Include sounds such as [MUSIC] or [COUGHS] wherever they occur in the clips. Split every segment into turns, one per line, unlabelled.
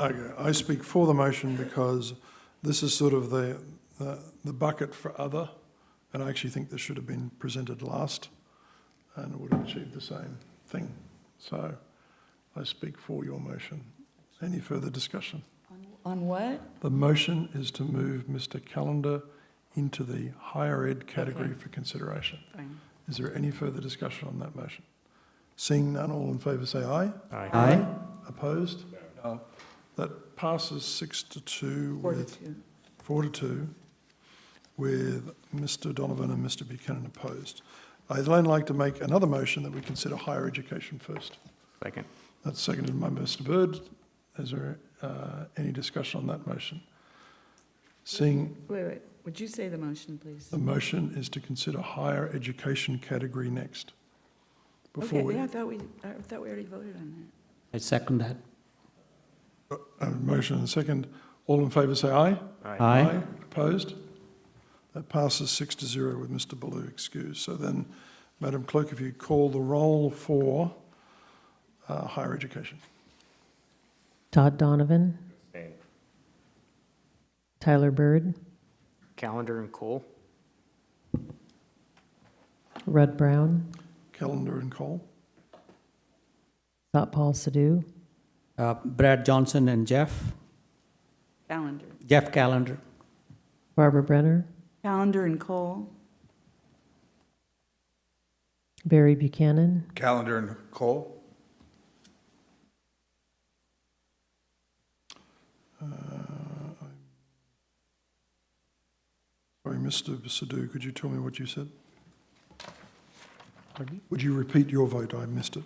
Okay, I speak for the motion because this is sort of the, the the bucket for other, and I actually think this should have been presented last, and it would have achieved the same thing. So I speak for your motion. Any further discussion?
On what?
The motion is to move Mr Callender into the higher ed category for consideration.
Fine.
Is there any further discussion on that motion? Seeing none, all in favour say aye.
Aye.
Opposed? No. That passes six to two
Four to
with,
two.
four to two, with Mr Donovan and Mr Buchanan opposed. I'd then like to make another motion that we consider higher education first.
Second.
That's seconded by Mr Bird. Is there uh, any discussion on that motion? Seeing
Wait, wait, would you say the motion, please?
the motion is to consider higher education category next. Before
Okay,
we,
yeah, I thought we, I thought we already voted on
I second that.
a motion and a second, all in favour say aye.
Aye.
Opposed? That passes six to zero with Mr. Baloo excused. So then, Madam Clerk, if you call the roll for uh, higher education.
Todd Donovan. Tyler Bird,
Calendar and Cole?
Rudd Brown,
Calendar and Cole.
Thought Paul Sadoo,
Uh, Brad Johnson and Jeff,
that. Calendar.
Jeff Calendar,
Barbara Brenner,
Calendar and Cole,
Barry Buchanan,
Calendar and Cole?
Uh, Sorry, Mr. Sadoo, could you tell me what you said? Would you repeat your vote? I missed it.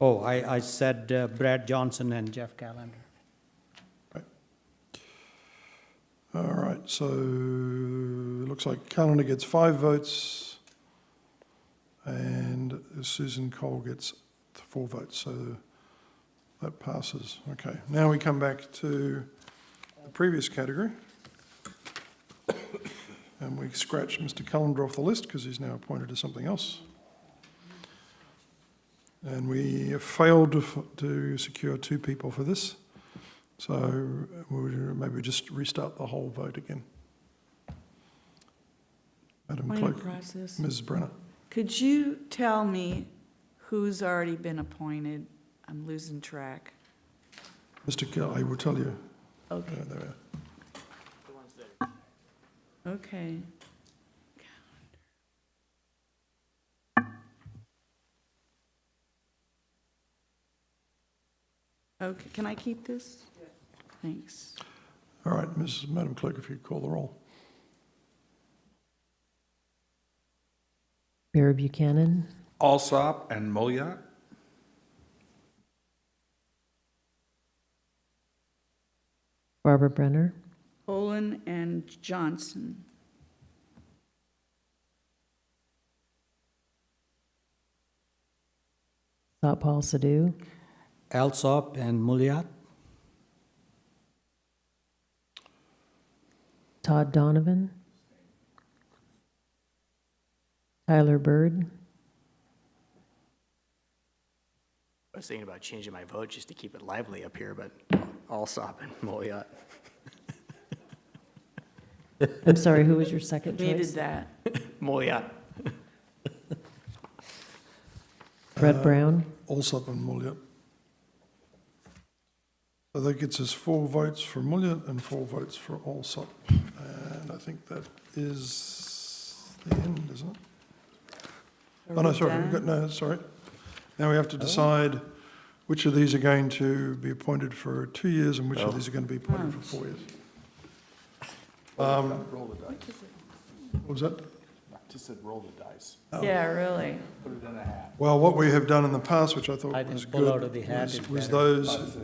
oh, I, I said uh, Brad Johnson and Jeff Calendar.
All right, so it looks like Calendar gets five votes and Susan Cole gets four votes, so that passes. Okay, now we come back to the previous category. [COUGHS] And we scratch Mr. Calendar off the list because he's now appointed to something else. And we failed to f- to secure two people for this. So we'll maybe just restart the whole vote again. Madam
point
Clerk,
of process.
Ms. Brenner.
Could you tell me who's already been appointed? I'm losing track.
Mr. Kelly, I will tell you. Uh,
Okay,
There, there we are.
okay. Okay, can I keep this? Thanks.
All right, Ms. Madam Clerk, if you call the roll.
Barry Buchanan,
Alsop and Mulleyat?
Barbara Brenner,
Olin and Johnson.
Thought Paul Sadoo,
Alsop and Muliat,
Todd Donovan, Tyler Bird,
I was thinking about changing my vote just to keep it lively up here, but Alsop [LAUGHS] and Moliat.
I'm sorry, who was your second
Needed
choice?
that.
Moliat.
Rudd Brown,
Alsop and Mulleyat. So that gets us four votes for Mulleyat and four votes for Alsop. And I think that is the end, isn't it?
Are
Oh, no,
we
sorry,
done?
we've got, no, sorry. Now we have to decide which of these are going to be appointed for two years and which of these are going to be appointed for four years. Um, What was that?
Just said roll the dice.
Yeah, really.
Well, what we have done in the past, which I thought
I
was
think pull out
good,
of the hat
was-
is
was
better.
those,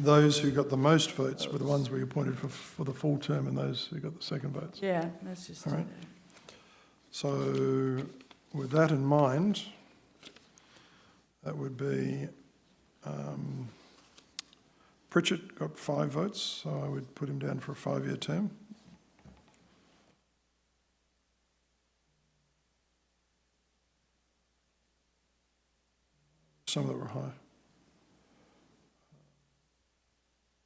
those who got the most votes were the ones we appointed for, for the full term and those who got the second votes.
Yeah, that's just.
All right. So with that in mind, that would be, um, Pritchett got five votes, so I would put him down for a five-year term. Some that were high.